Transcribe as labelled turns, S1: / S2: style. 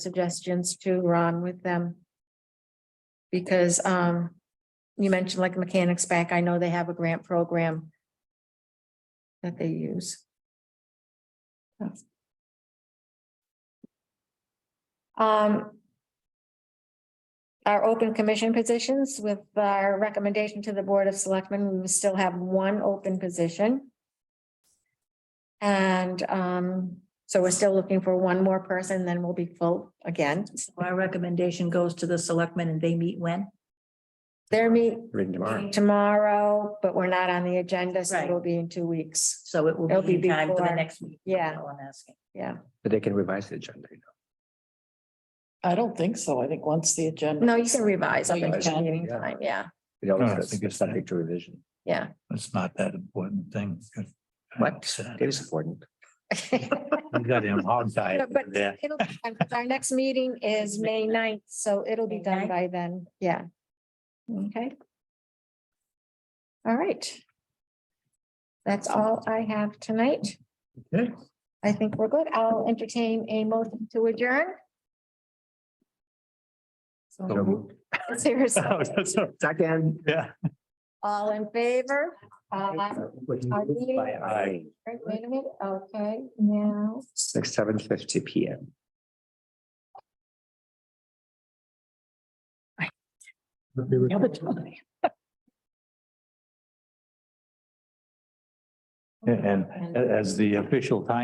S1: suggestions to Ron with them. Because um, you mentioned like mechanics back, I know they have a grant program. That they use. Um. Our open commission positions with our recommendation to the Board of Selectmen, we still have one open position. And um, so we're still looking for one more person, then we'll be full again.
S2: Our recommendation goes to the selectmen and they meet when?
S1: Their meet
S3: Reading tomorrow.
S1: tomorrow, but we're not on the agenda, so
S2: Right.
S1: it'll be in two weeks.
S2: So it will
S1: It'll
S2: be in
S1: be
S2: time for the
S1: before-
S2: next meeting.
S1: yeah.
S2: all I'm asking.
S1: Yeah.
S3: But they can revise the agenda. you know.
S4: I don't think so. I think once the agenda.
S1: No, you can revise up
S4: Oh, you
S1: until
S4: can?
S1: meeting
S3: Yeah.
S1: time. Yeah,
S3: It always
S5: No, I
S3: goes-
S5: think
S3: it's
S5: it's-
S3: subject to revision.
S1: yeah.
S5: It's not that important thing.
S3: What? It is important.
S5: You got him hog tied
S1: But
S5: over there.
S1: it'll, our next meeting is May 9th, so it'll be
S2: May
S1: done
S2: 9th?
S1: by then. Yeah. Okay. All right. That's all I have tonight.
S5: Okay.
S1: I think we're good. I'll entertain a motion to adjourn. Seriously,
S3: Second.
S5: Yeah.
S1: all in favor? Uh,
S3: By eye,
S1: Wait wait a minute, okay, now,
S3: six, seven fifty P M.
S5: And a- as the official time.